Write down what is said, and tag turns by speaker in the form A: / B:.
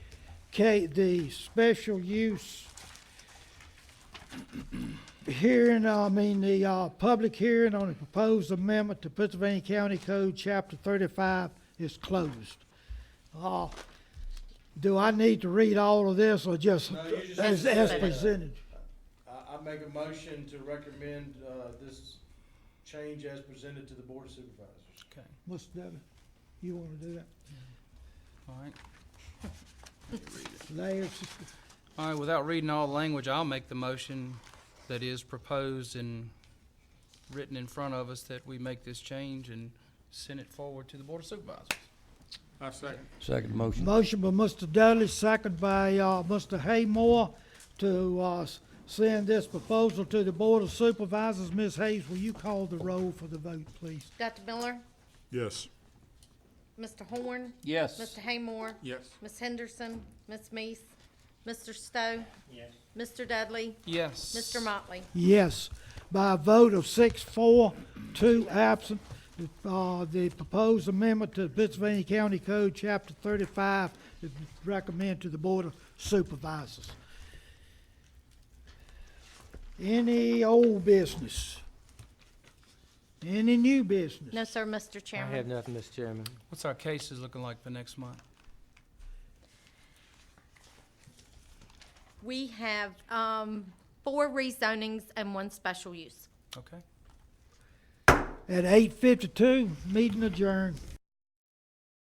A: Okay, the special use hearing, I mean, the, uh, public hearing on the proposed amendment to Pennsylvania County Code, Chapter thirty-five is closed. Uh, do I need to read all of this or just
B: No, you just-
A: as, as presented?
B: I, I make a motion to recommend, uh, this change as presented to the board of supervisors.
C: Okay,
A: Mr. Devin, you wanna do that?
C: all right.
A: Last,
C: All right, without reading all the language, I'll make the motion that is proposed and written in front of us that we make this change and send it forward to the Board of Supervisors.
D: I second.
E: Second motion.
A: motion by Mr. Dudley, second by, uh, Mr. Haymore to, uh, s- send this proposal to the Board of Supervisors. Ms. Hayes, will you call the roll for the vote, please?
F: Dr. Miller,
D: Yes.
F: Mr. Horn,
E: Yes.
F: Mr. Haymore,
D: Yes.
F: Ms. Henderson, Ms. Mees, Mr. Stowe,
B: Yes.
F: Mr. Dudley,
C: Yes.
F: Mr. Motley.
A: Yes, by a vote of six, four, two absent, uh, the proposed amendment to the Pennsylvania County Code, Chapter thirty-five, is recommended to the Board of Supervisors. Any old business? Any new business?
F: No, sir, Mr.
G: I have
F: Chairman.
G: nothing, Mr. Chairman.
C: What's our cases looking like for next month?
F: We have, um, four rezonings and one special use.
C: Okay?
A: At eight fifty-two, meeting adjourned.